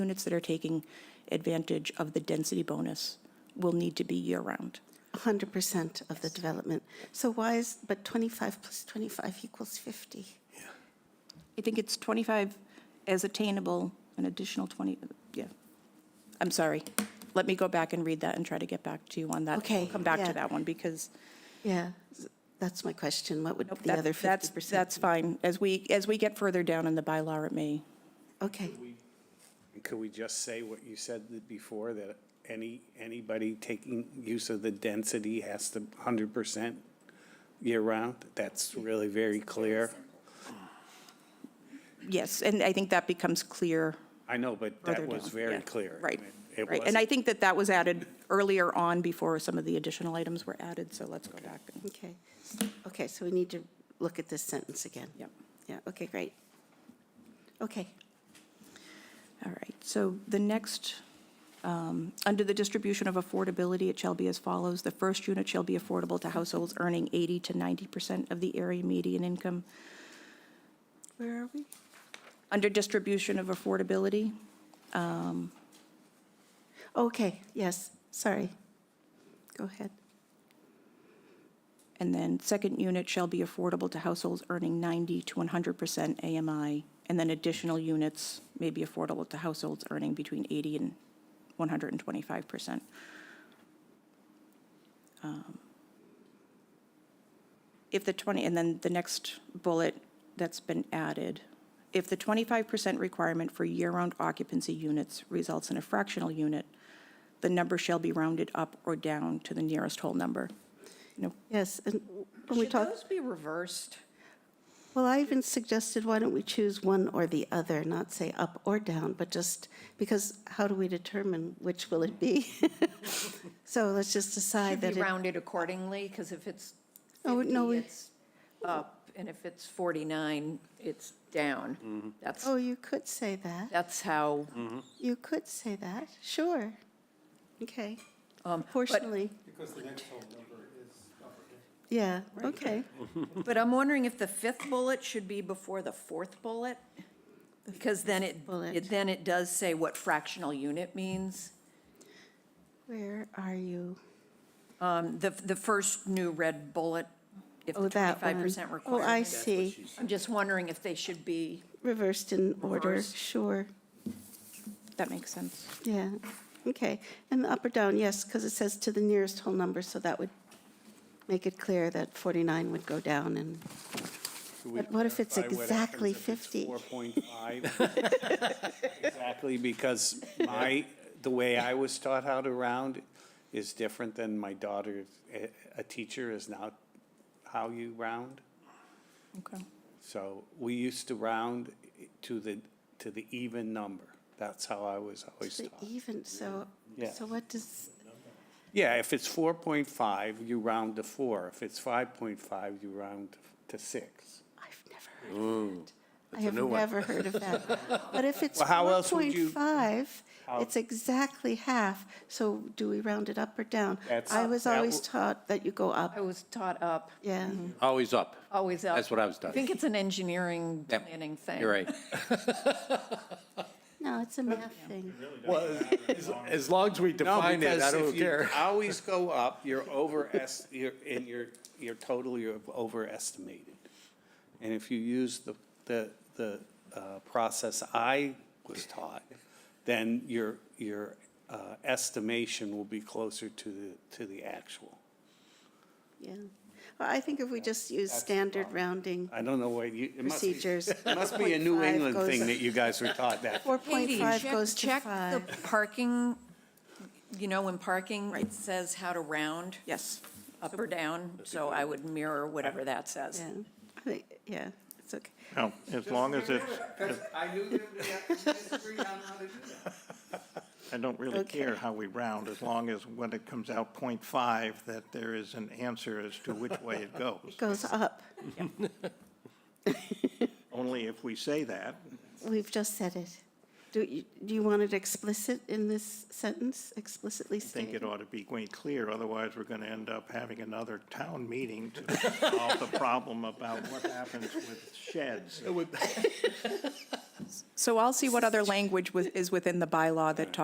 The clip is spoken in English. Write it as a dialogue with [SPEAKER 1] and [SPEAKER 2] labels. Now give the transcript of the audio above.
[SPEAKER 1] Units that are taking advantage of the density bonus will need to be year-round.
[SPEAKER 2] 100% of the development. So why is, but 25 plus 25 equals 50?
[SPEAKER 1] I think it's 25 as attainable, an additional 20, yeah. I'm sorry. Let me go back and read that and try to get back to you on that.
[SPEAKER 2] Okay,
[SPEAKER 1] We'll Come back
[SPEAKER 2] yeah.
[SPEAKER 1] to that one because
[SPEAKER 2] Yeah, that's my question. What would
[SPEAKER 1] nope,
[SPEAKER 2] the
[SPEAKER 1] that-
[SPEAKER 2] other
[SPEAKER 1] that's,
[SPEAKER 2] 50%?
[SPEAKER 1] that's fine. As we, as we get further down in the bylaw, it may.
[SPEAKER 2] Okay,
[SPEAKER 3] Could we just say what you said th- before, that any, anybody taking use of the density has to hundred percent year-round? That's really very clear.
[SPEAKER 1] Yes, and I think that becomes clear
[SPEAKER 3] I know, but
[SPEAKER 1] further
[SPEAKER 3] that was
[SPEAKER 1] down.
[SPEAKER 3] very
[SPEAKER 1] Yeah,
[SPEAKER 3] clear.
[SPEAKER 1] Right,
[SPEAKER 3] It
[SPEAKER 1] right. And I
[SPEAKER 3] wasn't-
[SPEAKER 1] think that that was added earlier on before some of the additional items were added, so let's go back. and-
[SPEAKER 2] okay. Okay, so we need to look at this sentence again.
[SPEAKER 1] Yep.
[SPEAKER 2] Yeah, okay, great. Okay,
[SPEAKER 1] All right, so the next, um, under the distribution of affordability, it shall be as follows. The first unit shall be affordable to households earning 80 to 90% of the area median income.
[SPEAKER 2] where are we?
[SPEAKER 1] Under distribution of affordability,
[SPEAKER 2] Okay, yes, sorry. Go ahead.
[SPEAKER 1] and then second unit shall be affordable to households earning 90 to 100% AMI, and then additional units may be affordable to households earning between 80 and 125%. Um, if the 20, and then the next bullet that's been added, if the 25% requirement for year-round occupancy units results in a fractional unit, the number shall be rounded up or down to the nearest whole number. You know,
[SPEAKER 2] Yes, and when we
[SPEAKER 4] Should
[SPEAKER 2] talk,
[SPEAKER 4] those be reversed?
[SPEAKER 2] well, I even suggested, why don't we choose one or the other, not say up or down, but just, because how do we determine which will it be? So let's just decide
[SPEAKER 4] Should
[SPEAKER 2] that
[SPEAKER 4] be
[SPEAKER 2] it
[SPEAKER 4] rounded accordingly, because if it's
[SPEAKER 2] Oh, no,
[SPEAKER 4] 50,
[SPEAKER 2] we-
[SPEAKER 4] it's up, and if it's 49, it's down. That's,
[SPEAKER 2] Oh, you could say that.
[SPEAKER 4] that's how,
[SPEAKER 2] You could say that, sure. Okay,
[SPEAKER 4] um, but,
[SPEAKER 2] proportionally. Because the next whole number is Yeah, okay.
[SPEAKER 4] but I'm wondering if the fifth bullet should be before the fourth bullet? Because then it,
[SPEAKER 2] bullet.
[SPEAKER 4] it- then it does say what fractional unit means.
[SPEAKER 2] Where are you?
[SPEAKER 4] Um, The, the first new red bullet, if
[SPEAKER 2] Oh,
[SPEAKER 4] the
[SPEAKER 2] that one.
[SPEAKER 4] 25%
[SPEAKER 2] Oh, I
[SPEAKER 4] requirement.
[SPEAKER 2] see,
[SPEAKER 4] I'm just wondering if they should be,
[SPEAKER 2] reversed in order,
[SPEAKER 4] Reversed.
[SPEAKER 2] sure,
[SPEAKER 1] That makes sense.
[SPEAKER 2] yeah. Okay, and up or down, yes, because it says to the nearest whole number, so that would make it clear that 49 would go down and,
[SPEAKER 3] Could we
[SPEAKER 2] But what if it's
[SPEAKER 3] clarify what
[SPEAKER 2] exactly
[SPEAKER 3] happens if it's
[SPEAKER 2] 50?
[SPEAKER 3] 4.5? Exactly, because my, the way I was taught how to round is different than my daughter, a, a teacher is now how you round.
[SPEAKER 1] Okay.
[SPEAKER 3] So we used to round to the, to the even number. That's how I was always
[SPEAKER 2] so
[SPEAKER 3] taught.
[SPEAKER 2] even, so,
[SPEAKER 3] Yeah.
[SPEAKER 2] so what does,
[SPEAKER 3] Yeah, if it's four point five, you round to four. If it's five point five, you round to six.
[SPEAKER 2] I've never heard of that. I
[SPEAKER 5] a
[SPEAKER 2] have
[SPEAKER 5] new one.
[SPEAKER 2] never heard of that. But if it's
[SPEAKER 3] Well, how else would you-
[SPEAKER 2] 4.5, it's exactly half. So do we round it up or down?
[SPEAKER 3] That's-
[SPEAKER 2] I was
[SPEAKER 3] that
[SPEAKER 2] always
[SPEAKER 3] w-
[SPEAKER 2] taught that you go
[SPEAKER 4] I
[SPEAKER 2] up,
[SPEAKER 4] was taught up,
[SPEAKER 2] yeah.
[SPEAKER 5] Always up.
[SPEAKER 4] always up.
[SPEAKER 5] That's what I was
[SPEAKER 4] I
[SPEAKER 5] taught.
[SPEAKER 4] think it's an engineering
[SPEAKER 5] Yep.
[SPEAKER 4] planning thing.
[SPEAKER 5] You're right.
[SPEAKER 2] No, it's a math thing.
[SPEAKER 5] Well, as, as long as we
[SPEAKER 3] No,
[SPEAKER 5] define it,
[SPEAKER 3] because
[SPEAKER 5] I
[SPEAKER 3] if
[SPEAKER 5] don't
[SPEAKER 3] you
[SPEAKER 5] care.
[SPEAKER 3] Always go up, you're over, est- you're, and you're, you're totally overestimated. And if you use the, the, the, uh, process I was taught, then your, your, uh, estimation will be closer to the, to the actual.
[SPEAKER 2] Yeah. Well, I think if we just use standard rounding
[SPEAKER 3] I don't know what you, it must be.
[SPEAKER 2] procedures.
[SPEAKER 3] it Must be a New
[SPEAKER 2] 4.5
[SPEAKER 3] England
[SPEAKER 2] goes-
[SPEAKER 3] thing that you guys were taught that.
[SPEAKER 4] Katie,
[SPEAKER 2] 4.5
[SPEAKER 4] check-
[SPEAKER 2] goes to
[SPEAKER 4] check
[SPEAKER 2] 5.
[SPEAKER 4] the parking, you know, when parking, it says how to round,
[SPEAKER 1] Yes.
[SPEAKER 4] up or down, so I would mirror whatever that says.
[SPEAKER 2] Yeah, I think- yeah, it's okay.
[SPEAKER 6] No, Oh, as long as it's,
[SPEAKER 3] I knew that we had to disagree on how to do that.
[SPEAKER 6] I don't really
[SPEAKER 2] Okay.
[SPEAKER 6] care how we round, as long as when it comes out point five, that there is an answer as to which way it goes.
[SPEAKER 2] It goes up.
[SPEAKER 6] Only if we say that,
[SPEAKER 2] We've just said it. Do you, do you want it explicit in this sentence, explicitly
[SPEAKER 6] I think
[SPEAKER 2] stated?
[SPEAKER 6] it ought to be quite clear, otherwise we're going to end up having another town meeting to solve the problem about what happens with sheds.
[SPEAKER 1] So I'll see what other language with- is within the bylaw that talks